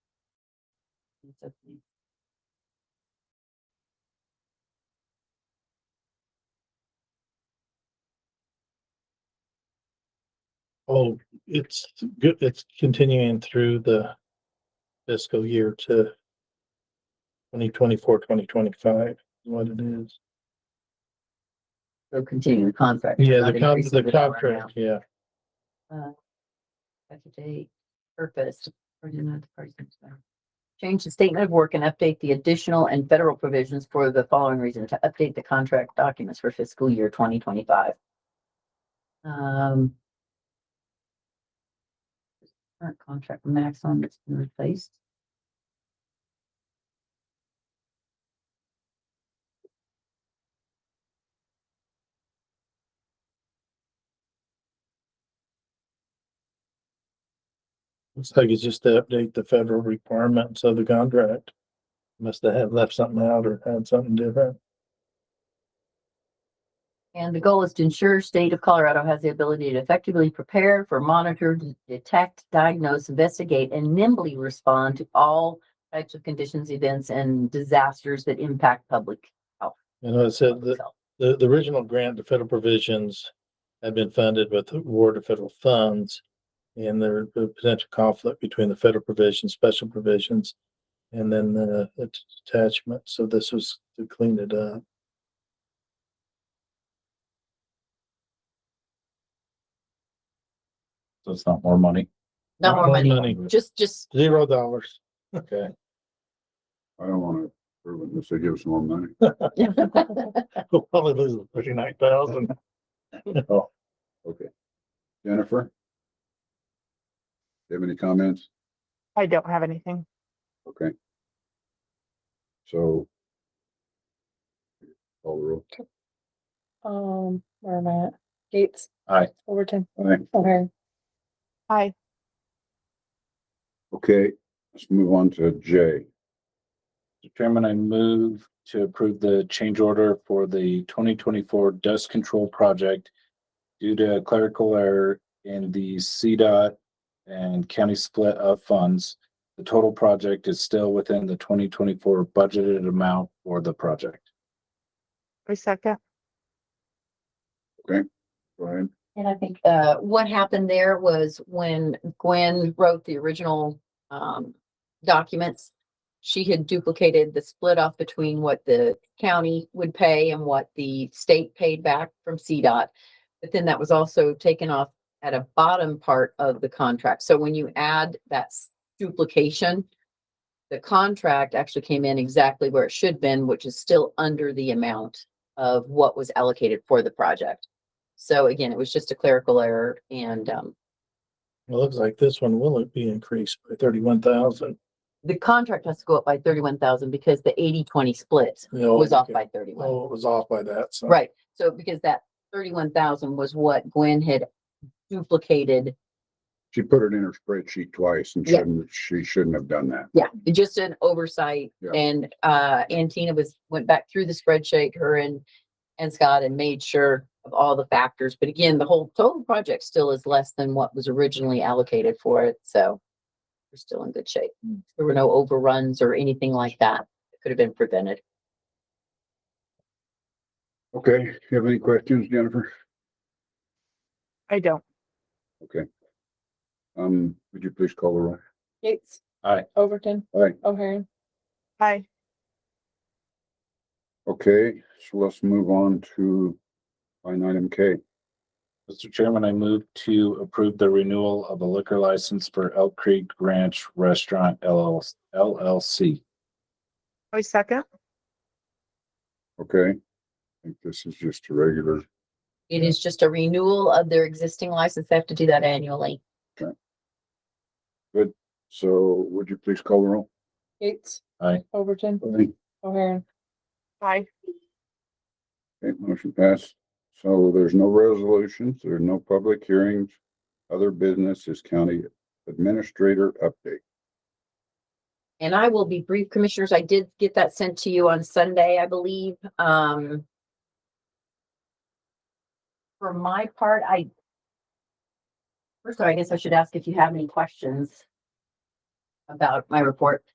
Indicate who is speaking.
Speaker 1: Oh, it's good, it's continuing through the fiscal year to 2024, 2025 is what it is.
Speaker 2: They're continuing the contract. they're
Speaker 1: Yeah,
Speaker 2: not
Speaker 1: the con-
Speaker 2: increasing
Speaker 1: the
Speaker 2: dollar
Speaker 1: contract, yeah.
Speaker 2: amount, Effective date, purpose, or do not the person- Change the statement of work and update the additional and federal provisions for the following reason to update the contract documents for fiscal year twenty twenty-five. Um. Current contract maximum that's been replaced.
Speaker 1: Looks like it's just to update the federal requirements of the contract. Must have had left something out or had something different.
Speaker 2: And the goal is to ensure state of Colorado has the ability to effectively prepare for, monitor, d- detect, diagnose, investigate, and nimbly respond to all types of conditions, events, and disasters that impact public.
Speaker 1: You know, it said
Speaker 2: public
Speaker 1: that
Speaker 2: health.
Speaker 1: The, the original grant, the federal provisions have been funded with award of federal funds. And there the potential conflict between the federal provisions, special provisions, and then the the detachment. So this was to clean it up.
Speaker 3: So it's not more money.
Speaker 2: No more money, just, just,
Speaker 1: Zero dollars.
Speaker 3: Okay.
Speaker 4: I don't wanna prove it unless they give us more money.
Speaker 1: We'll probably lose the thirty-nine thousand.
Speaker 4: Okay. Jennifer? Do you have any comments?
Speaker 5: I don't have anything.
Speaker 4: Okay. So. Call the roll.
Speaker 6: Um, where am I at? Gates.
Speaker 3: Aye.
Speaker 6: Overton.
Speaker 4: Aye.
Speaker 6: O'Hare.
Speaker 5: Hi,
Speaker 4: Okay, let's move on to J.
Speaker 3: Mr. Chairman, I move to approve the change order for the twenty twenty-four dust control project due to clerical error in the CDOT and county split of funds. The total project is still within the twenty twenty-four budgeted amount for the project.
Speaker 5: I second.
Speaker 4: Brian,
Speaker 2: and I think, uh, what happened there was when Gwen wrote the original, um, documents, she had duplicated the split off between what the county would pay and what the state paid back from CDOT. But then that was also taken off at a bottom part of the contract. So when you add that s- duplication, the contract actually came in exactly where it should have been, which is still under the amount of what was allocated for the project. So again, it was just a clerical error and um,
Speaker 1: It looks like this one will be increased by thirty-one thousand.
Speaker 2: the contract has to go up by thirty-one thousand because the 80-20 split was off by thirty-one.
Speaker 1: Oh, it was off by that, so.
Speaker 2: Right, so because that thirty-one thousand was what Gwen had duplicated,
Speaker 4: she put it in her spreadsheet twice and
Speaker 2: Yeah.
Speaker 4: shouldn't, she shouldn't have done that.
Speaker 2: yeah, just an oversight.
Speaker 4: Yeah.
Speaker 2: And uh, and Tina was, went back through the spreadsheet, her and, and Scott and made sure of all the factors. But again, the whole total project still is less than what was originally allocated for it, so we're still in good shape. There were no overruns or anything like that that could have been prevented.
Speaker 4: Okay, you have any questions, Jennifer?
Speaker 5: I don't.
Speaker 4: Um, would you please call the roll?
Speaker 6: Gates.
Speaker 3: Aye.
Speaker 6: Overton.
Speaker 4: Aye.
Speaker 6: O'Hare.
Speaker 5: Hi,
Speaker 4: Okay, so let's move on to line item K.
Speaker 3: Mr. Chairman, I move to approve the renewal of a liquor license for Elk Creek Ranch Restaurant LLC.
Speaker 5: I second.
Speaker 4: Okay, I think this is just a regular,
Speaker 2: It is just a renewal of their existing license. They have to do that annually.
Speaker 4: so would you please call the roll?
Speaker 6: Gates.
Speaker 3: Aye.
Speaker 6: Overton.
Speaker 4: Okay,
Speaker 6: O'Hare.
Speaker 5: Hi,
Speaker 4: motion passed. So there's no resolutions, there are no public hearings. Other business is county administrator update.
Speaker 2: And I will be brief, commissioners. I did get that sent to you on Sunday, I believe. Um. For my part, I. First, of all, I guess I should ask if you have any questions about my report.